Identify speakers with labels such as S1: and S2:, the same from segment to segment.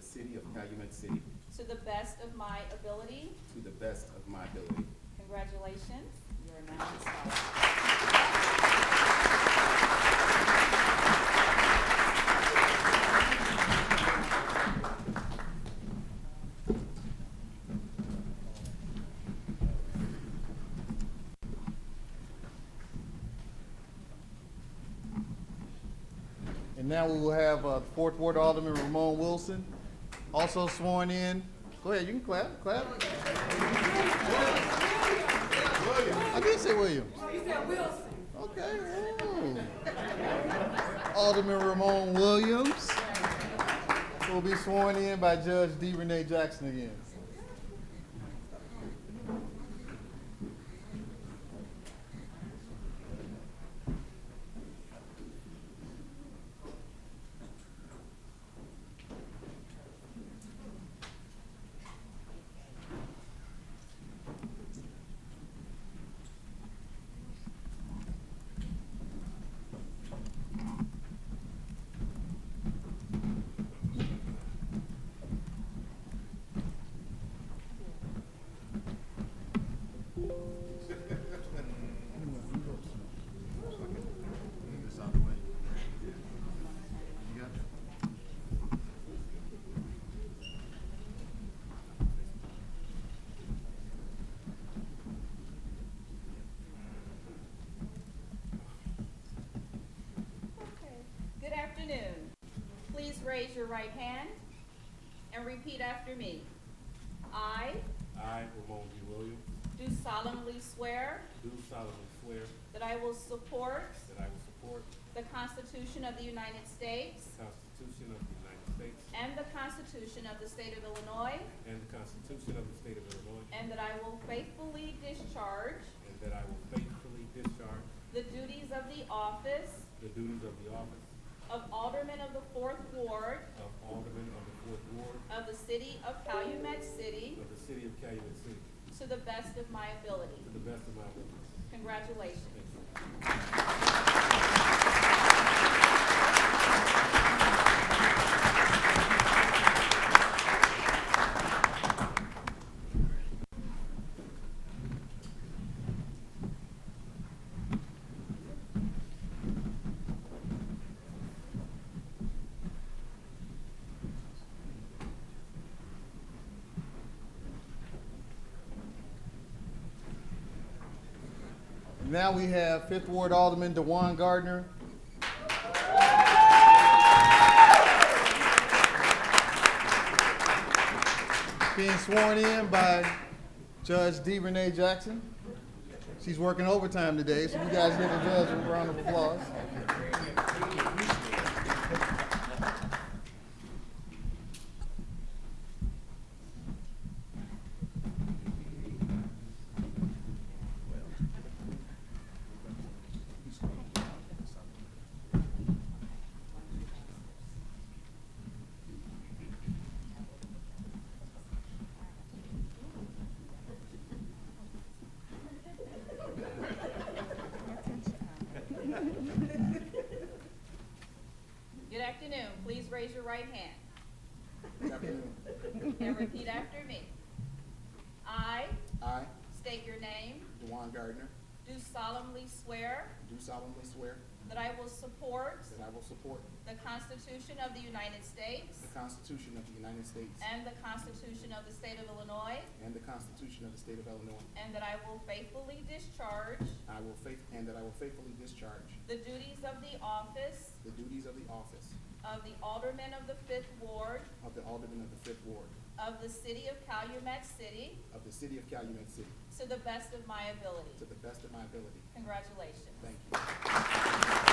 S1: city of Calumet City
S2: to the best of my ability.
S1: to the best of my ability.
S2: Congratulations, you are now installed.
S3: And now we will have uh, Fourth Ward Alderman Ramon Wilson, also sworn in. Go ahead, you can clap, clap. I did say Williams.
S4: He said Wilson.
S3: Okay. ooh. Alderman Ramon Williams will be sworn in by Judge D. Renee Jackson again.
S2: Good afternoon. Please raise your right hand and repeat after me. I
S5: I, Ramon D. Williams,
S2: do solemnly swear
S5: do solemnly swear
S2: that I will support
S5: that I will support
S2: the Constitution of the United States
S5: the Constitution of the United States
S2: and the Constitution of the State of Illinois,
S5: and the Constitution of the State of Illinois,
S2: and that I will faithfully discharge
S5: and that I will faithfully discharge
S2: the duties of the office
S5: the duties of the office
S2: of Alderman of the Fourth Ward
S5: of Alderman of the Fourth Ward
S2: of the City of Calumet City
S5: of the City of Calumet City
S2: to the best of my ability.
S5: to the best of my ability.
S2: Congratulations.
S5: Thank you.
S3: Now we have Fifth Ward Alderman Dewan Gardner. Being sworn in by Judge D. Renee Jackson. She's working overtime today, so you guys give the judge a round of applause.
S2: Good afternoon. Please raise your right hand and repeat after me. I
S1: I,
S2: state your name,
S1: Dewan Gardner,
S2: do solemnly swear
S1: do solemnly swear
S2: that I will support
S1: that I will support
S2: the Constitution of the United States
S1: the Constitution of the United States
S2: and the Constitution of the State of Illinois,
S1: and the Constitution of the State of Illinois.
S2: and that I will faithfully discharge
S1: I will faith, and that I will faithfully discharge
S2: the duties of the office
S1: the duties of the office
S2: of the Alderman of the Fifth Ward
S1: of the Alderman of the Fifth Ward
S2: of the City of Calumet City
S1: of the City of Calumet City
S2: to the best of my ability.
S1: to the best of my ability.
S2: Congratulations.
S1: Thank you.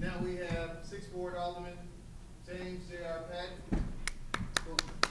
S3: Now we have Sixth Ward Alderman James J.R. Patton, who